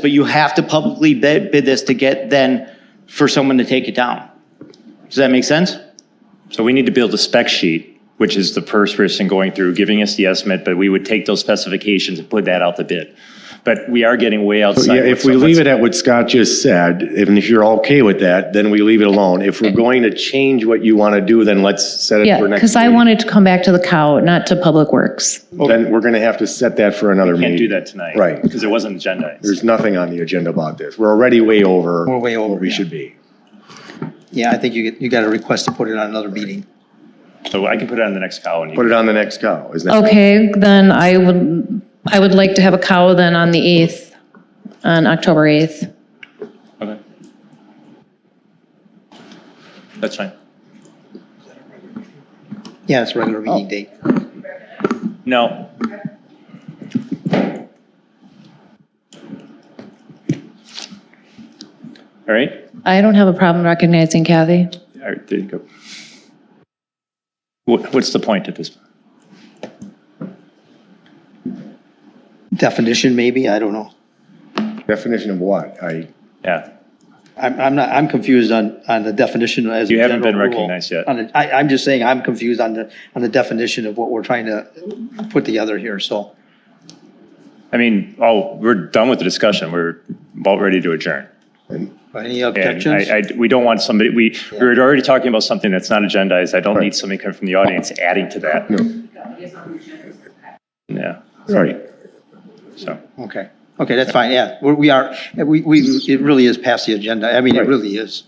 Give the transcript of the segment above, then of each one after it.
but you have to publicly bid, bid this to get then for someone to take it down. Does that make sense? So we need to build a spec sheet, which is the first person going through, giving us the estimate, but we would take those specifications and put that out the bid. But we are getting way outside. Yeah, if we leave it at what Scott just said, and if you're okay with that, then we leave it alone. If we're going to change what you want to do, then let's set it Yeah, for next. because I meeting. wanted to come back to the cow, not to Public Works. Then we're going to have to set that for another Can't meeting. do that tonight. Right. Because it wasn't agendized. There's nothing on the agenda about this. We're already way over. We're way over, What we yeah. should be. Yeah, I think you, you got a request to put it on another meeting. So I can put it on the next call and you Put it on the next cow, isn't that? Okay, then I would, I would like to have a cow then on the 8th, on October 8th. Okay. That's fine. Yeah, it's a regular meeting Oh. date. No. All right. I don't have a problem recognizing Kathy. All right, there you go. What, what's the point at this? Definition maybe, I don't know. Definition of what? I, Yeah. I'm, I'm not, I'm confused on, on the definition as. a You haven't general been rule. recognized yet. On the- I, I'm just saying I'm confused on the, on the definition of what we're trying to put together here, so. I mean, oh, we're done with the discussion. We're about ready to adjourn. And Any objections? I, I, we don't want somebody, we, we were already talking about something that's not agendized. I don't need somebody coming from the audience adding to that. Yeah, right. so, Okay, okay, that's fine, yeah, we're- we are, we, we, it really is past the agenda, I mean, it Right. really is.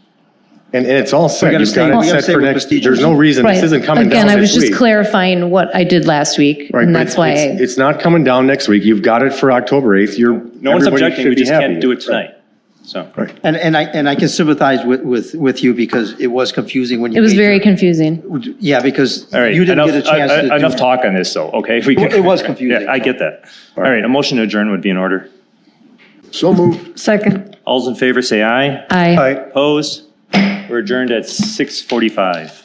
And, and it's all set. gotta You've got stay- we it gotta set stay for with next, procedures. there's no reason. Right. This isn't coming down Again, I was this just week. clarifying what I did last week, Right, and but that's it's- why It's I, it's not coming down next week. You've got it for October 8th. You're. no one's everybody objecting, should we be just happy. can't do it tonight, so. Right. And, and I, and I can sympathize with, with, with you because it was confusing when you. it was made very your- confusing. Yeah, because All right, you didn't enough, get a chance I- I- to do. enough talk on this though, okay? If we can- It was confusing. Yeah, I get that. All right, a motion to adjourn would be in order. So moved. Second. All's in favor, say aye. Aye. Opposed? We're adjourned at 6:45.